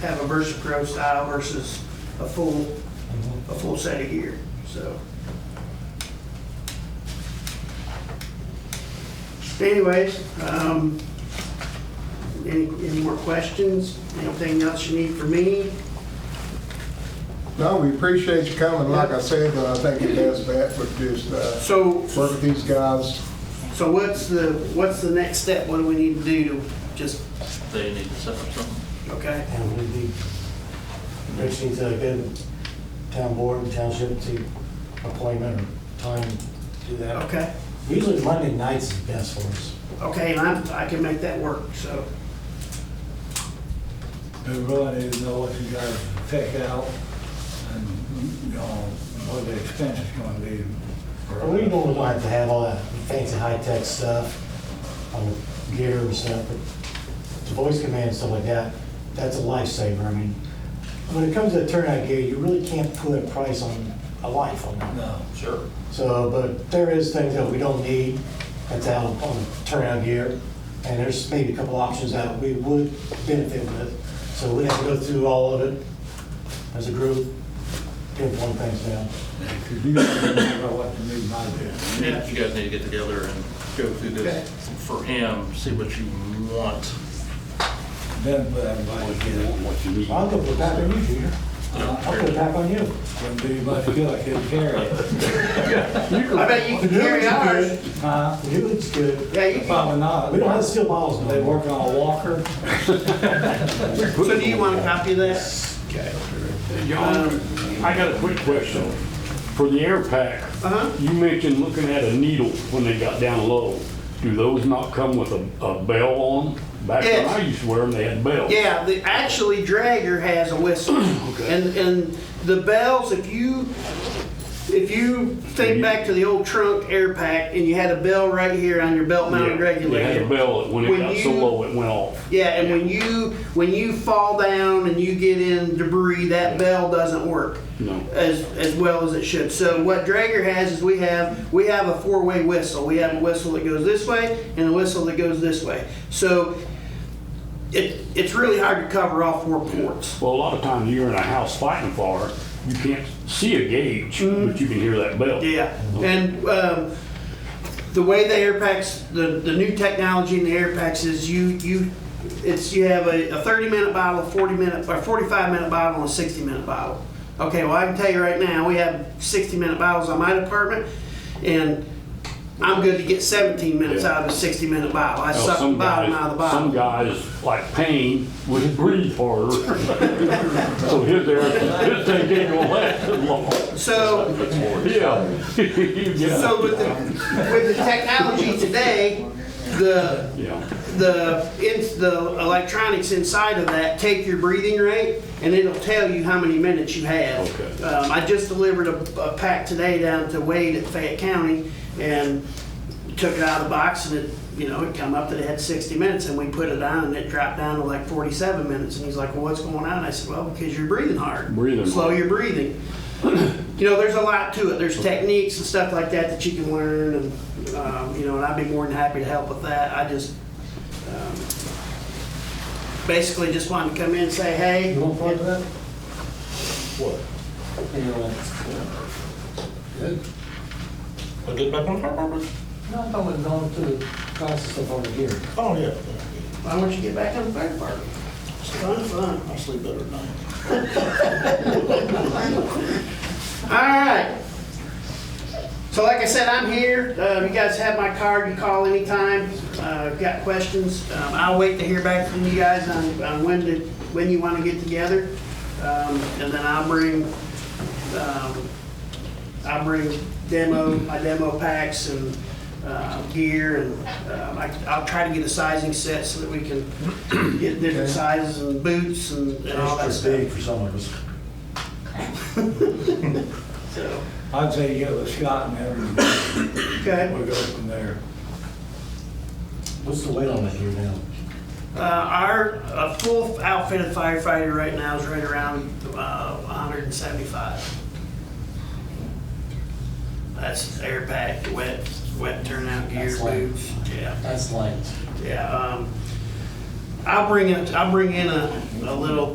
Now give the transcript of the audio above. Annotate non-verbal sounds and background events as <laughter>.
have a VersaPro style versus a full, a full set of gear, so. Anyways, um, any, any more questions? Anything else you need from me? No, we appreciate you coming, like I said, but I think your best bet would just uh, So, work with these guys. so what's the, what's the next step? What do we need to do to just, They need to set up something. okay? And we need, Rich needs to get town board and township to appointment or time to do that. Okay, Usually Monday nights is best for us. okay, and I, I can make that work, so, They really need to know what you gotta take out and, you know, what the expense is gonna be. for- We normally don't have to have all that fancy high-tech stuff, all the gear and stuff, but the voice command and stuff like that, that's a lifesaver. I mean, when it comes to turnout gear, you really can't put a price on a life on that. No. Sure. So, but there is things that we don't need that's out on turnout gear, and there's maybe a couple options that we would benefit with. So we have to go through all of it as a group, pinpoint things down. Because you don't know what you need by then. Yeah. You guys need to get together and go through Okay. this for him, see what you want. Then put everybody together. what you need. I'll go put back on you, Junior. I'll put it back on you. Wouldn't be much good, I couldn't carry it. I bet you can carry ours. Huh? The new looks good. Yeah, you can. Probably not. We don't have steel bottles They no more. work on a walker. So do you want a copy of that? John, I got a quick question. For the air pack, Uh-huh. you mentioned looking at a needle when they got down low. Do those not come with a, a bell on? 'em? Back when Yes. I used to wear them, they had bells. Yeah, the, actually Dragger has a <clears throat> whistle. And, and the bells, if you, if you think back to the old trunk air pack and you had a bell right here on your belt mounted They had a regulator. bell that when it When got so you- low, it went off. Yeah, and when you, when you fall down and you get in debris, that bell doesn't work. No. As, as well as it should. So what Drager has is we have, we have a four-way whistle. We have a whistle that goes this way and a whistle that goes this way. So it, it's really hard to cover all four ports. Well, a lot of times you're in a house fighting fire, you can't see a gauge, but you can hear that bell. Mm-hmm. Yeah, and um, the way the air packs, the, the new technology in the air packs is you, you, it's, you have a, a thirty minute bottle, a forty minute, or forty-five minute bottle and a sixty minute bottle. Okay, well, I can tell you right now, we have sixty minute bottles on my department, and I'm good to get seventeen minutes Yeah. out of a sixty minute bottle. I Now, suck the some bottom guys- out of the Some bottle. guys, like Payne, would <laughs> breathe harder. So his air, his thing ain't gonna last that long. So, Yeah. <laughs> so Yeah. with the, with the technology today, the, Yeah. the, ins the electronics inside of that take your breathing rate, and it'll tell you how many minutes you have. Okay. Um, I just delivered a, a pack today down to Wade at Fayette County, and took it out of the box, and it, you know, it come up that it had sixty minutes, and we put it on, and it dropped down to like forty-seven minutes, and he's like, well, what's going on? I said, well, because you're breathing hard. Breathing Slow hard. your breathing. <clears throat> You know, there's a lot to it, there's techniques and stuff like that that you can learn, and, um, you know, and I'd be more than happy to help with that, I just, um, basically just wanted to come in and say, hey. You want part of that? What? Good. Put it back on top of it? No, I thought we'd gone through the process of all the gear. Oh, yeah. Why don't you get back on the fire department? It's fun, fun. I sleep better at night. All right. So like I said, I'm here. Uh, You guys have my card, you call anytime. Uh, if you Got questions? Um, I'll wait to hear back from you guys on on when to, when you want to get together. Um, And then I'll bring, um, I'll bring demo, my demo packs and uh, gear and um, I- I'll try to get a sizing set so that we can get different sizes and boots and and all that It's big stuff. for some of us. So, I'd say give it a shot and everything, okay. we'll go from there. What's the weight on that gear now? Uh, our, a full outfitted firefighter right now is right around, uh, hundred and seventy-five. That's air pack, wet, wet turnout gear, That's light. boots, yeah. That's light. Yeah, um, I'll bring it, I'll bring in a, a little